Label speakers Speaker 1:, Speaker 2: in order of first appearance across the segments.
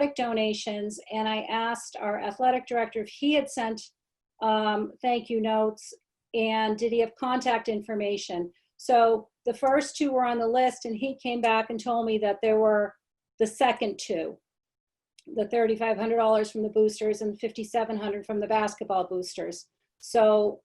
Speaker 1: athletic donations, and I asked our athletic director if he had sent um, thank you notes, and did he have contact information? So the first two were on the list, and he came back and told me that there were the second two, the thirty-five hundred dollars from the boosters and fifty-seven hundred from the basketball boosters. So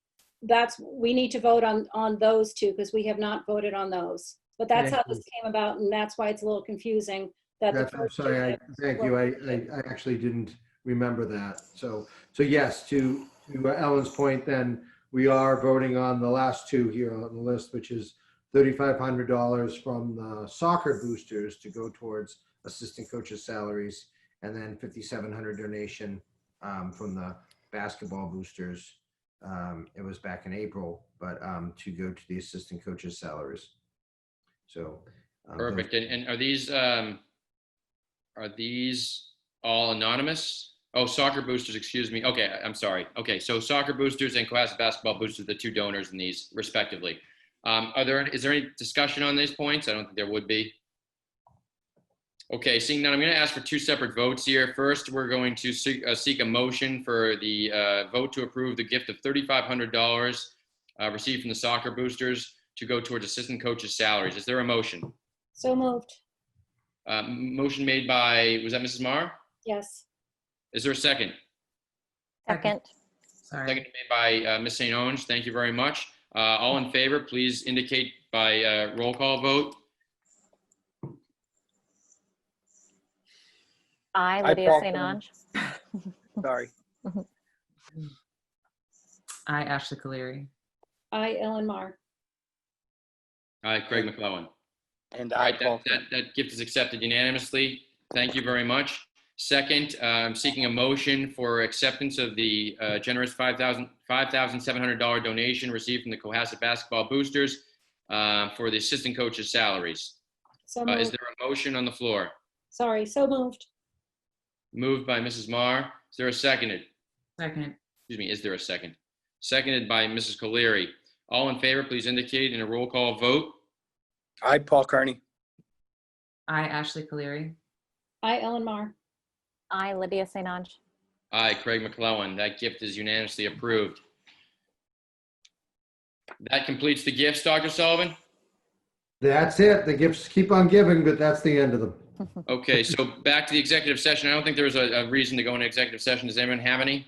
Speaker 1: that's, we need to vote on, on those two, because we have not voted on those. But that's how this came about, and that's why it's a little confusing that the
Speaker 2: That's, I'm
Speaker 1: first two
Speaker 2: sorry, I, thank you, I, I- I actually didn't remember that. So, so yes, to, to uh, Ellen's point then, we are voting on the last two here on the list, which is thirty-five hundred dollars from the soccer boosters to go towards assistant coaches' salaries, and then fifty-seven hundred donation um, from the basketball boosters. Um, It was back in April, but um, to go to the assistant coaches' salaries. So. um, those-
Speaker 3: Perfect. And, and are these, um, are these all anonymous? Oh, soccer boosters, excuse me. Okay, I- I'm sorry. Okay, so soccer boosters and Cohasset basketball boosters, the two donors in these respectively. Um, are there, is there any discussion on these points? I don't think there would be. Okay, seeing none, I'm going to ask for two separate votes here. First, we're going to seek, uh, seek a motion for the, uh, vote to approve the gift of $3,500 uh, received from the soccer boosters to go towards assistant coaches' salaries. Is there a motion?
Speaker 1: So moved,
Speaker 3: Uh, m- motion made by, was that Mrs. Mar?
Speaker 1: yes.
Speaker 3: Is there a second?
Speaker 4: Second.
Speaker 5: Second.
Speaker 3: Second
Speaker 5: Sorry.
Speaker 3: made by uh, Ms. St. Owens. Thank you very much. Uh, All in favor, please indicate by uh, roll call vote.
Speaker 4: I,
Speaker 6: I
Speaker 4: Lydia
Speaker 6: back
Speaker 4: St.
Speaker 6: down.
Speaker 4: Ange.
Speaker 6: Sorry.
Speaker 5: I, Ashley Caleri.
Speaker 1: I, Ellen Mar.
Speaker 3: Uh, Craig McClellan.
Speaker 6: And
Speaker 3: All
Speaker 6: I,
Speaker 3: right, that,
Speaker 6: Paul.
Speaker 3: that, that gift is accepted unanimously. Thank you very much. Second, uh, I'm seeking a motion for acceptance of the uh, generous $5,000 $5,700 donation received from the Cohasset Basketball Boosters uh, for the assistant coaches' salaries.
Speaker 1: So
Speaker 3: Uh, Is
Speaker 1: moved,
Speaker 3: there a motion on the floor?
Speaker 1: sorry, so moved.
Speaker 3: Moved by Mrs. Mar. Is there a seconded?
Speaker 5: Second.
Speaker 3: Excuse me, is there a second? Seconded by Mrs. Colery. All in favor, please indicate in a roll call vote.
Speaker 6: I, Paul Kearney.
Speaker 5: I, Ashley Caleri.
Speaker 1: I, Ellen Mar.
Speaker 4: I, Lydia St. Ange.
Speaker 3: Aye, Craig McClellan. That gift is unanimously approved. That completes the gifts, Dr. Sullivan.
Speaker 2: That's it. The gifts keep on giving, but that's the end of them.
Speaker 3: Okay, so back to the executive session. I don't think there was a, a reason to go into executive session. Does anyone have any?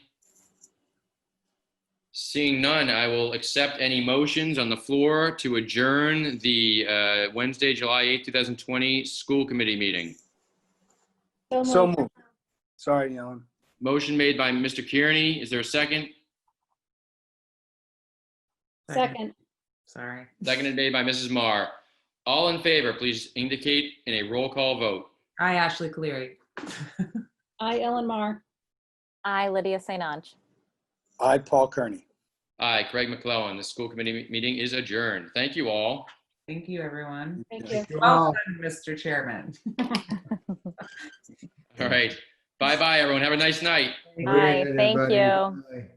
Speaker 3: Seeing none, I will accept any motions on the floor to adjourn the uh, Wednesday, July 8, 2020 school committee meeting.
Speaker 6: So moved. Sorry, Ellen.
Speaker 3: Motion made by Mr. Kearney. Is there a second?
Speaker 1: Second,
Speaker 5: Sorry.
Speaker 3: Seconded made by Mrs. Marr. All in favor, please indicate in a roll call vote.
Speaker 5: I, Ashley Caleri.
Speaker 1: I, Ellen Mar.
Speaker 4: I, Lydia St. Ange.
Speaker 6: I, Paul Kearney.
Speaker 3: Aye, Craig McClellan. The school committee me- meeting is adjourned. Thank you all.
Speaker 5: Thank you, everyone.
Speaker 1: Thank you.
Speaker 5: Well done, Mr. Chairman.
Speaker 3: All right. Bye-bye, everyone. Have a nice night.
Speaker 4: Aye, thank
Speaker 2: Everybody.
Speaker 4: you.
Speaker 2: Bye.